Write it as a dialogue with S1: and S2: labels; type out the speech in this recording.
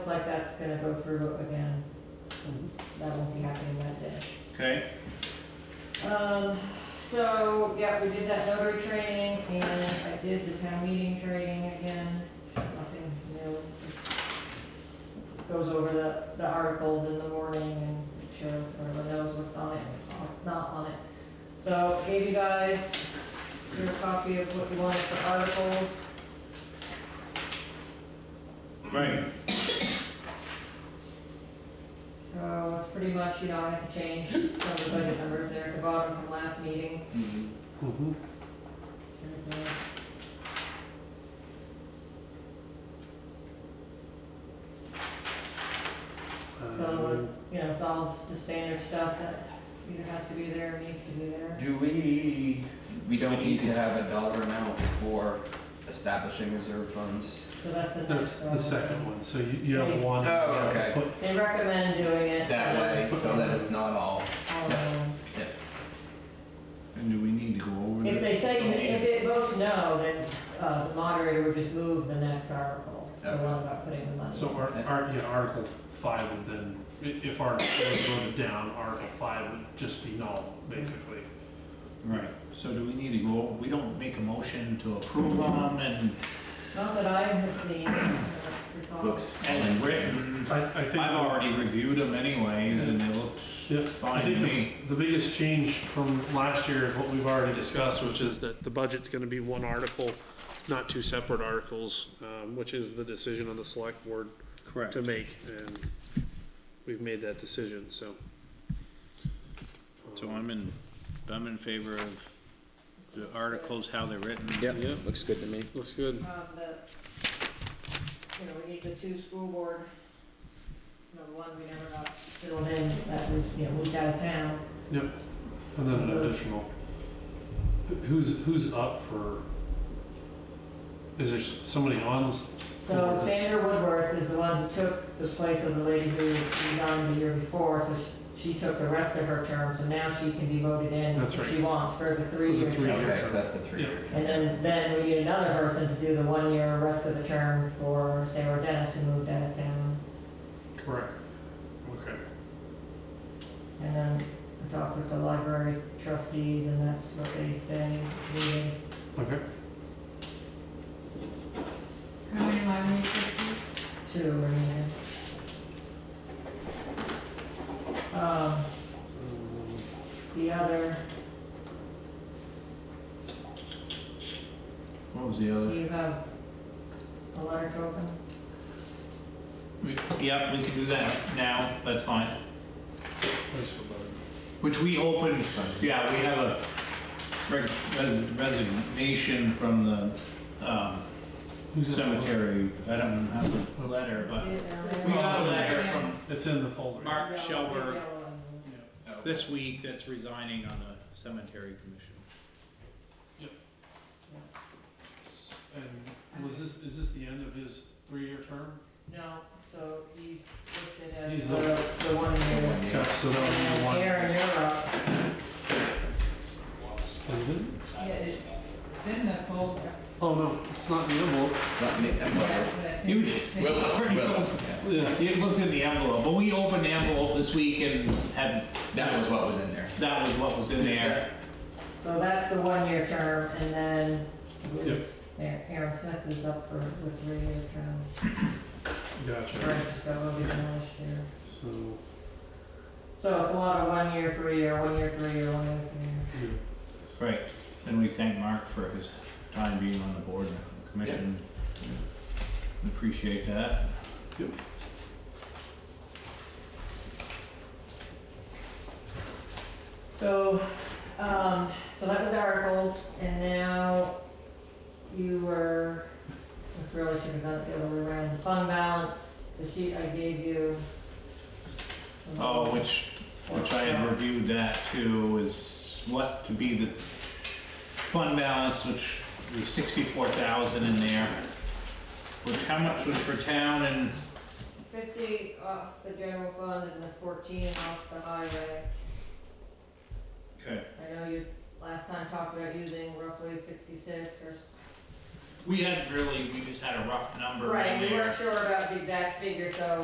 S1: like that's gonna go through again. That won't be happening that day.
S2: Okay,
S1: Um, so, yeah, we did that notary training, and I did the town meeting training again, nothing new. Just Goes over the, the articles in the morning and make sure everyone knows what's on it, what's not on it. So gave you guys your copy of what you wanted for articles.
S2: right,
S1: So it's pretty much, you know, I had to change some of the budget numbers there at the bottom from last meeting.
S3: Mhm. Uh,
S1: Everything else. So, Uh,
S3: Um,
S1: you know, it's all the standard stuff that either has to be there or needs to be there.
S4: Do we, we don't need to have a dollar amount for establishing reserve funds?
S1: So that's the
S3: That's
S1: next one.
S3: the second one, so you, you have one. and
S4: Oh,
S3: you have to
S4: okay.
S3: put-
S1: They recommend doing it.
S4: That
S1: so
S4: way, so that it's not all,
S1: all of them.
S5: And do we need to go over
S1: If
S5: this?
S1: they say, if it votes no, then uh, the moderator would just move the next article, the
S4: Okay.
S1: one about putting the money.
S3: So our, our, yeah, Article five would then, i- if Article four is voted down, Article five would just be null, basically.
S5: Right, so do we need to go, we don't make a motion to approve them and
S1: Not that I have seen, I don't recall.
S4: looks.
S5: as written?
S1: Mm-hmm.
S3: I, I think.
S5: I've already reviewed them anyways and they looked
S3: Yeah, I
S5: fine to
S3: think
S5: me.
S3: the, the biggest change from last year is what we've already discussed, which is that the budget's gonna be one article, not two separate articles, um, which is the decision of the select board
S2: correct.
S3: to make, and we've made that decision, so.
S2: So I'm in, I'm in favor of the articles, how they're written.
S4: looks good to me.
S3: Looks good.
S1: Um, the, you know, we need the two school board, the one we never got filled in, that was, you know, moved out of town.
S3: And then an additional, who- who's, who's up for, is there s- somebody on this?
S1: So
S3: Woodward's.
S1: Sandra Woodworth is the one who took the place of the lady who resigned the year before, so she, she took the rest of her term, so now she can be voted in
S3: That's
S1: if
S3: right.
S1: she wants for the three-year
S3: three
S1: term.
S3: years.
S4: Okay, so that's the three year.
S1: And then, then we need another person to do the one-year rest of the term for Sarah Dennis, who moved out of town.
S3: Correct. Okay.
S1: And then I talked with the library trustees, and that's what they say, meeting
S3: Okay.
S6: How many library trustees?
S1: two or anything. Um, the other,
S5: What was the
S1: do
S5: other?
S1: you have a letter to open?
S2: We- Yep, we can do that now, that's fine. Which we opened, yeah, we have a reg- res- resignation from the um,
S3: Who's that?
S2: cemetery. I don't have a letter, but
S1: See it down
S2: we
S1: there?
S2: got a letter from
S3: It's in the folder.
S2: Mark
S1: Yellow,
S2: Shelburne.
S1: yellow and-
S2: this week that's resigning on the cemetery commission.
S3: And was this, is this the end of his three-year term?
S1: No, so he's listed as
S3: He's
S1: the, the one year.
S4: One
S3: Okay,
S4: year.
S3: so
S1: And
S3: that would be
S1: then
S3: one.
S1: Aaron, you're up.
S3: Is it?
S6: Yeah, it- It's in the folder,
S3: Oh, no, it's not in the envelope.
S4: Let me- I'm
S6: yeah,
S4: over.
S6: but I think.
S2: You,
S4: Will, will,
S3: Yeah.
S2: you looked in the envelope, but we opened the envelope this week and had,
S4: that was what was in there.
S2: that was what was in there.
S1: So that's the one-year term, and then
S3: Yep.
S1: Aaron Aaron Smith is up for, the three-year term.
S3: Gotcha.
S1: Frank just got voted in last year.
S3: So,
S1: So it's a lot of one-year, three-year, one-year, three-year, one-year, three-year.
S3: yeah.
S2: Right, and we thank Mark for his time being on the board and commission. Appreciate that.
S1: So, um, so that was the articles, and now you were, which really should have done it the other way around, the fund balance, the sheet I gave you.
S2: Oh, which, which I had reviewed that too, is what to be the fund balance, which was sixty-four thousand in there. Which, how much was for town and,
S1: Fifty off the general fund and the fourteen off the highway.
S2: okay.
S1: I know you last time talked about using roughly sixty-six or
S2: We had really, we just had a rough number in there.
S1: Right, we weren't sure about the exact figure, so